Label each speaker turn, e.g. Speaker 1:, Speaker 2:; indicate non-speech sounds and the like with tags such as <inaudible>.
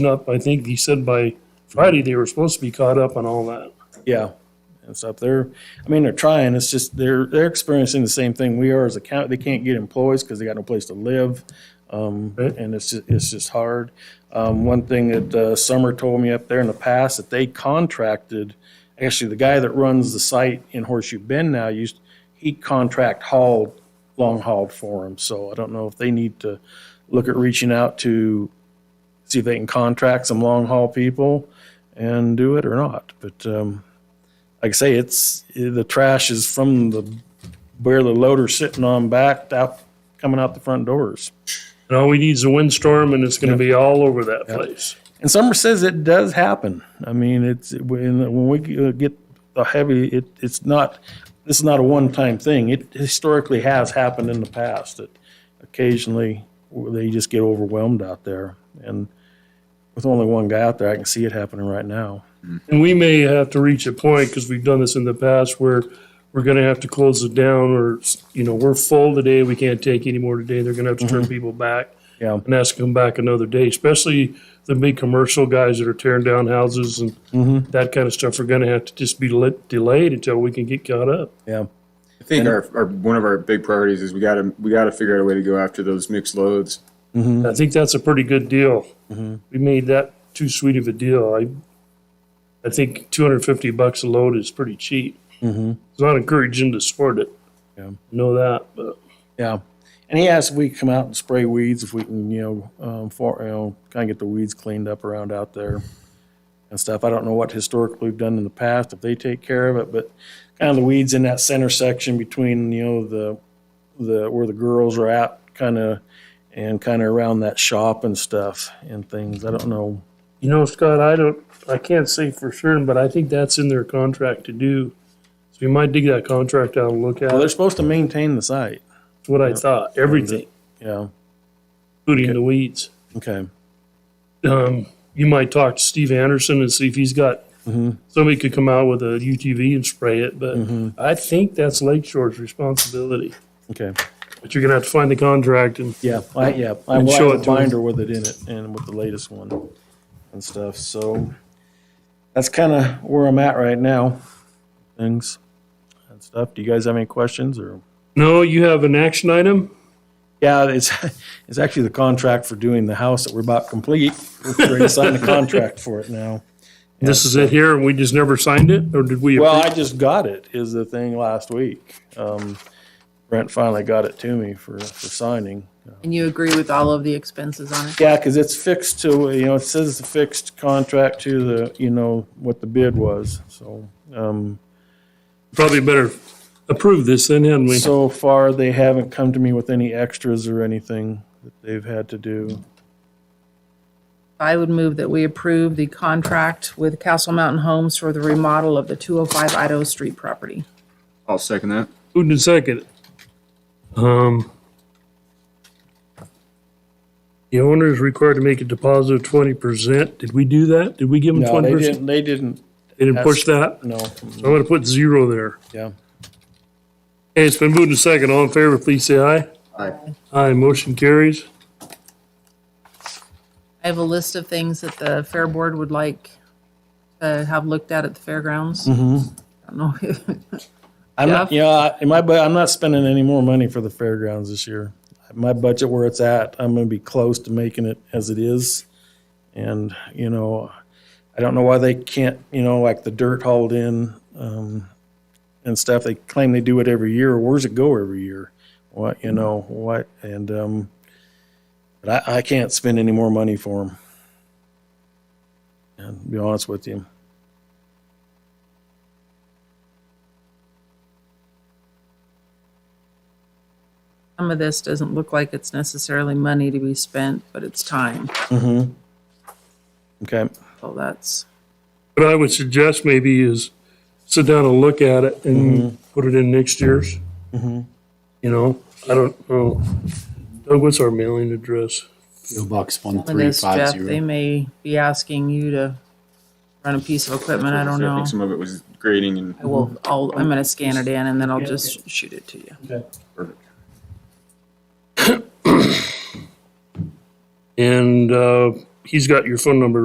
Speaker 1: up, I think he said by Friday they were supposed to be caught up on all that.
Speaker 2: Yeah, and stuff. They're, I mean, they're trying. It's just they're they're experiencing the same thing we are as a county. They can't get employees because they got no place to live, um,
Speaker 1: Right.
Speaker 2: and it's just, it's just hard. Um, one thing that uh, Summer told me up there in the past that they contracted. Actually, the guy that runs the site in Horseshoe Bend now used he contract hauled long hauled for him. So I don't know if they need to look at reaching out to see if they can contract some long haul people and do it or not. But um, like I say, it's the trash is from the where the loader's sitting on back out coming out the front doors.
Speaker 1: And all we need is a windstorm and it's gonna be all over that place.
Speaker 2: And Summer says it does happen. I mean, it's when when we get the heavy, it it's not. This is not a one-time thing. It historically has happened in the past that occasionally they just get overwhelmed out there. And with only one guy out there, I can see it happening right now.
Speaker 1: And we may have to reach a point, because we've done this in the past, where we're gonna have to close it down or, you know, we're full today, we can't take any more today, they're gonna have to turn people back
Speaker 2: Yeah.
Speaker 1: and ask them back another day, especially the big commercial guys that are tearing down houses and that kind of stuff are gonna have to just be lit- delayed until we can get caught up.
Speaker 2: Yeah.
Speaker 3: I think our, our one of our big priorities is we got to we got to figure out a way to go after those mixed loads.
Speaker 1: I think that's a pretty good deal.
Speaker 2: Mm-hmm.
Speaker 1: We made that too sweet of a deal. I, I think two hundred and fifty bucks a load is pretty cheap. It's not encouraging to sport it.
Speaker 2: Yeah.
Speaker 1: I Know that, but
Speaker 2: Yeah. And he asked if we could come out and spray weeds, if we can, you know, um, for, you know, kind of get the weeds cleaned up around out there and stuff. I don't know what historically we've done in the past, if they take care of it, but kind of the weeds in that center section between, you know, the, the, where the girls are at, kind of, and kind of around that shop and stuff and things. I don't know.
Speaker 1: you know, Scott, I don't, I can't say for sure, but I think that's in their contract to do. So we might dig that contract out and look at
Speaker 2: Well, they're
Speaker 1: it.
Speaker 2: supposed to maintain the site.
Speaker 1: That's what I thought, everything,
Speaker 2: Yeah.
Speaker 1: including the weeds.
Speaker 2: Okay.
Speaker 1: Um, you might talk to Steve Anderson and see if he's got,
Speaker 2: Mm-hmm.
Speaker 1: somebody could come out with a UTV and spray it, but
Speaker 2: Mm-hmm.
Speaker 1: I think that's Lake Shore's responsibility.
Speaker 2: Okay.
Speaker 1: But you're gonna have to find the contract and
Speaker 2: Yeah, I, yeah, I
Speaker 1: And
Speaker 2: will
Speaker 1: show it
Speaker 2: have a
Speaker 1: to 'em.
Speaker 2: binder with it in it and with the latest one and stuff, so that's kind of where I'm at right now, things and stuff. Do you guys have any questions or?
Speaker 1: no, you have an action item.
Speaker 2: Yeah, it's, <laughs> it's actually the contract for doing the house that we're about complete. We're <laughs> ready to sign the contract for it now.
Speaker 1: This is it here, and we just never signed it, or did we?
Speaker 2: Well, I just got it, is the thing last week. Um, Brent finally got it to me for, for signing.
Speaker 4: And you agree with all of the expenses on it?
Speaker 2: Yeah, because it's fixed to, you know, it says the fixed contract to the, you know, what the bid was, so. um,
Speaker 1: probably better approve this then, hadn't we?
Speaker 2: So far, they haven't come to me with any extras or anything that they've had to do.
Speaker 4: I would move that we approve the contract with Castle Mountain Homes for the remodel of the 205 Idaho Street property.
Speaker 3: I'll second that.
Speaker 1: Who did second? Um, the owner is required to make a deposit of twenty percent. Did we do that? Did we give them
Speaker 2: No,
Speaker 1: twenty
Speaker 2: they
Speaker 1: percent?
Speaker 2: didn't, they didn't,
Speaker 1: They didn't push that?
Speaker 2: no,
Speaker 1: I'm gonna put zero there.
Speaker 2: yeah.
Speaker 1: Okay, it's been moved and second. All in favor, please say aye.
Speaker 3: Aye.
Speaker 1: Aye, motion carries.
Speaker 4: I have a list of things that the Fair Board would like to have looked at at the fairgrounds.
Speaker 2: Mm-hmm.
Speaker 4: I don't know.
Speaker 2: I'm not, yeah, in my, bu- I'm not spending any more money for the fairgrounds this year. My budget where it's at, I'm gonna be close to making it as it is. And, you know, I don't know why they can't, you know, like the dirt hauled in, um, and stuff, they claim they do it every year. Where's it go every year? What, you know, what, and, um, but I, I can't spend any more money for them. And to be honest with you.
Speaker 4: <laughs> Some of this doesn't look like it's necessarily money to be spent, but it's time.
Speaker 2: Okay,
Speaker 4: So that's,
Speaker 1: What I would suggest maybe is sit down and look at it and put it in next year's. You know, I don't know. Doug, what's our mailing address?
Speaker 5: PO Box
Speaker 4: some of this, Jeff,
Speaker 5: 1350.
Speaker 4: they may be asking you to run a piece of equipment. I don't
Speaker 3: So
Speaker 4: know.
Speaker 3: think some of it was grading and
Speaker 4: I will, I'll, I'm gonna scan it in and then I'll just shoot it to you.
Speaker 3: perfect.
Speaker 1: And uh, he's got your phone number